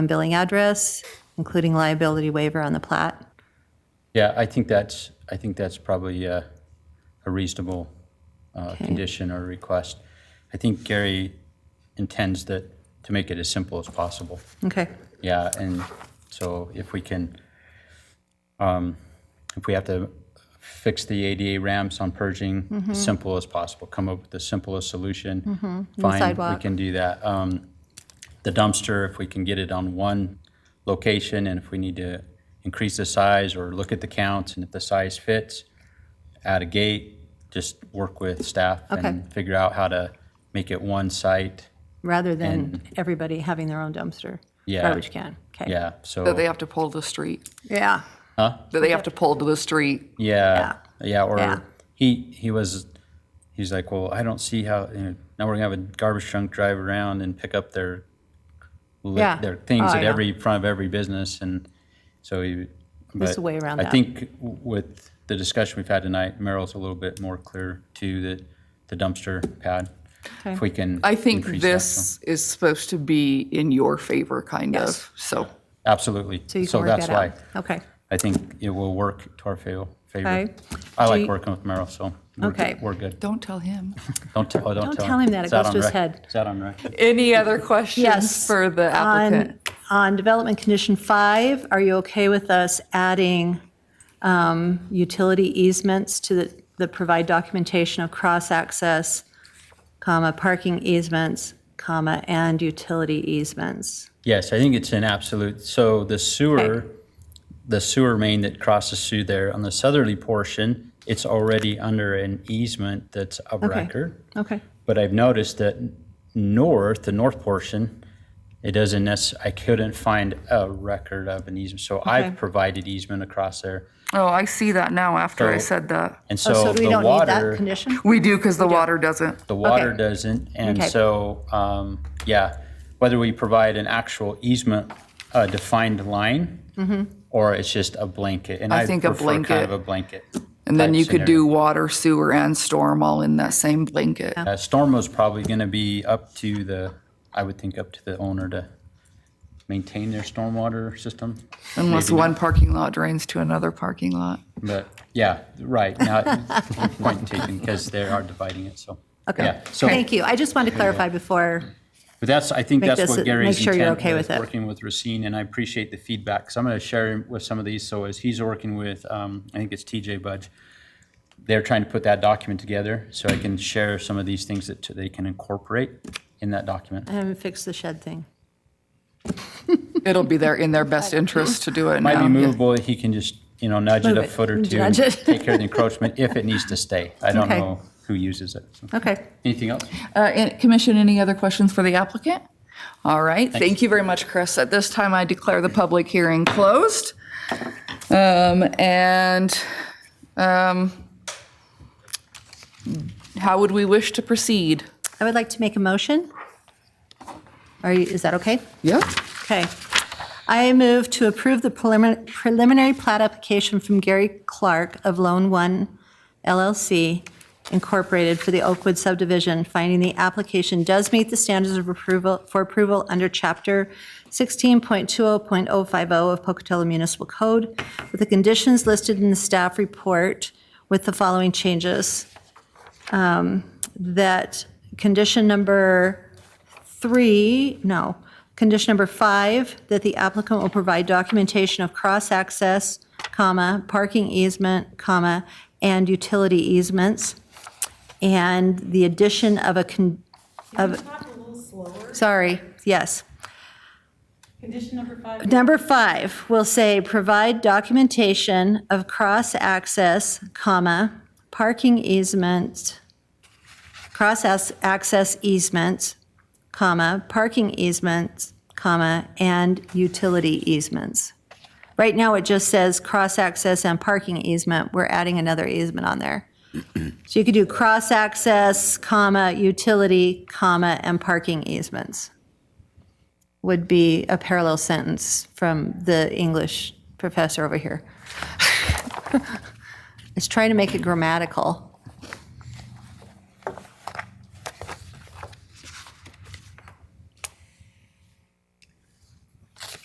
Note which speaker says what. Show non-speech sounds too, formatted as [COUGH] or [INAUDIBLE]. Speaker 1: and billing address, including liability waiver on the plat.
Speaker 2: Yeah, I think that's, I think that's probably uh, a reasonable uh, condition or request. I think Gary intends that, to make it as simple as possible.
Speaker 1: Okay,
Speaker 2: Yeah, and so if we can, um, if we have to fix the ADA ramps on purging,
Speaker 1: Mm-hmm.
Speaker 2: as simple as possible, come up with the simplest solution. Fine,
Speaker 1: sidewalk.
Speaker 2: we can do that. Um, The dumpster, if we can get it on one location, and if we need to increase the size or look at the counts, and if the size fits, add a gate, just work with staff
Speaker 1: Okay.
Speaker 2: and figure out how to make it one site.
Speaker 1: rather than everybody having their own dumpster.
Speaker 2: Yeah.
Speaker 1: Garbage can, okay.
Speaker 2: Yeah, so.
Speaker 3: That they have to pull to the street,
Speaker 1: Yeah,
Speaker 3: that they have to pull to the street.
Speaker 2: Yeah, yeah. Or
Speaker 1: Yeah.
Speaker 2: he he was he's like, well, I don't see how you know, now we're gonna have a garbage trunk drive around and pick up their li-
Speaker 1: Yeah.
Speaker 2: their things
Speaker 1: Oh, I
Speaker 2: at
Speaker 1: know.
Speaker 2: every front of every business, and so he.
Speaker 1: There's
Speaker 2: but
Speaker 1: a way around
Speaker 2: I
Speaker 1: that.
Speaker 2: think w- with the discussion we've had tonight, Merrill's a little bit more clear too that the dumpster pad.
Speaker 1: Okay.
Speaker 2: If we can,
Speaker 3: I think
Speaker 2: increase that, so-
Speaker 3: this is supposed to be in your favor, kind of, so.
Speaker 2: absolutely.
Speaker 1: so you can work
Speaker 2: that's
Speaker 1: that
Speaker 2: why
Speaker 1: out. Okay,
Speaker 2: I think it will work to our favor. favor.
Speaker 1: Okay.
Speaker 2: I
Speaker 1: Do
Speaker 2: like
Speaker 1: you-
Speaker 2: working with Merrill, so we're,
Speaker 1: Okay.
Speaker 2: we're good.
Speaker 3: Don't tell him.
Speaker 2: Don't tell, oh, don't,
Speaker 1: Don't tell him that, it
Speaker 2: It's out
Speaker 1: goes
Speaker 2: on
Speaker 1: to his
Speaker 2: rec-
Speaker 1: head.
Speaker 2: It's out on record.
Speaker 3: [LAUGHS] Any other questions
Speaker 1: yes.
Speaker 3: for the
Speaker 1: on-
Speaker 3: applicant?
Speaker 1: On development condition five, are you okay with us adding um, utility easements to the, the provide documentation of cross-access, comma, parking easements, comma, and utility easements?
Speaker 2: Yes, I think it's an absolute, so the sewer,
Speaker 1: Okay.
Speaker 2: the sewer main that crosses through there, on the southerly portion, it's already under an easement that's of record.
Speaker 1: Okay,
Speaker 2: But I've noticed that north, the north portion, it doesn't necess, I couldn't find a record of an easement. So I've
Speaker 1: Okay.
Speaker 2: provided easement across there.
Speaker 3: Oh, I see that now after I
Speaker 2: So-
Speaker 3: said that.
Speaker 2: And
Speaker 1: Oh,
Speaker 2: so
Speaker 1: so we
Speaker 2: the
Speaker 1: don't need that
Speaker 2: water,
Speaker 1: condition?
Speaker 3: We do, because the water doesn't.
Speaker 2: The water
Speaker 1: Okay.
Speaker 2: doesn't, and
Speaker 1: Okay.
Speaker 2: so, um, yeah, whether we provide an actual easement, a defined line, or it's just a blanket, and
Speaker 3: Mm-hmm. I
Speaker 2: I
Speaker 3: think a
Speaker 2: prefer kind
Speaker 3: blanket.
Speaker 2: of a blanket.
Speaker 3: And then
Speaker 2: type
Speaker 3: you could
Speaker 2: scenario.
Speaker 3: do water, sewer, and storm all in that same blanket.
Speaker 2: Uh, Storm was probably gonna be up to the, I would think up to the owner to maintain their stormwater system.
Speaker 3: Unless
Speaker 2: Maybe not,
Speaker 3: one parking lot drains to another parking lot. [LAUGHS]
Speaker 2: But, yeah, right, now, [LAUGHS] point taken, because they are dividing it, so.
Speaker 1: Okay,
Speaker 2: yeah, so-
Speaker 1: thank you. I just wanted to clarify before,
Speaker 2: But that's, I think
Speaker 1: Make
Speaker 2: that's
Speaker 1: this-
Speaker 2: what Gary's
Speaker 1: make sure you're
Speaker 2: intent
Speaker 1: okay
Speaker 2: with,
Speaker 1: with it.
Speaker 2: working with Racine, and I appreciate the feedback. So I'm going to share with some of these, so as he's working with, um, I think it's TJ Budge, they're trying to put that document together, so I can share some of these things that they can incorporate in that document.
Speaker 1: I haven't fixed the shed thing.
Speaker 3: It'll be their, in their best interest to do it now.
Speaker 2: Might be
Speaker 3: yeah.
Speaker 2: movable, he can just, you know, nudge it
Speaker 1: Move
Speaker 2: a
Speaker 1: it,
Speaker 2: foot or two, and
Speaker 1: nudge it.
Speaker 2: take care of the encroachment, if it needs to stay. I don't
Speaker 1: Okay.
Speaker 2: know who uses it. so.
Speaker 1: Okay,
Speaker 2: Anything else?
Speaker 3: Uh, and Commission, any other questions for the applicant? All right, thank you very much, Chris. At this time, I declare the public hearing closed. Um, And um, how would we wish to proceed?
Speaker 1: I would like to make a motion. Are you, is that okay?
Speaker 3: Yep.
Speaker 1: Okay. I move to approve the prelimin- preliminary plat application from Gary Clark of Lone One LLC Incorporated for the Oakwood subdivision, finding the application does meet the standards of approval, for approval under Chapter 16.20.050 of Pocatello Municipal Code, with the conditions listed in the staff report with the following changes. Um, That condition number three, no, condition number five, that the applicant will provide documentation of cross-access, comma, parking easement, comma, and utility easements, and the addition of a, con-
Speaker 4: Can you talk a little slower?
Speaker 1: sorry, yes.
Speaker 4: Condition number five.
Speaker 1: Number five will say, provide documentation of cross-access, comma, parking easements, cross-access easements, comma, parking easements, comma, and utility easements. Right now, it just says cross-access and parking easement. We're adding another easement on there. So you could do cross-access, comma, utility, comma, and parking easements would be a parallel sentence from the [LAUGHS] English professor over here. It's trying to make it grammatical.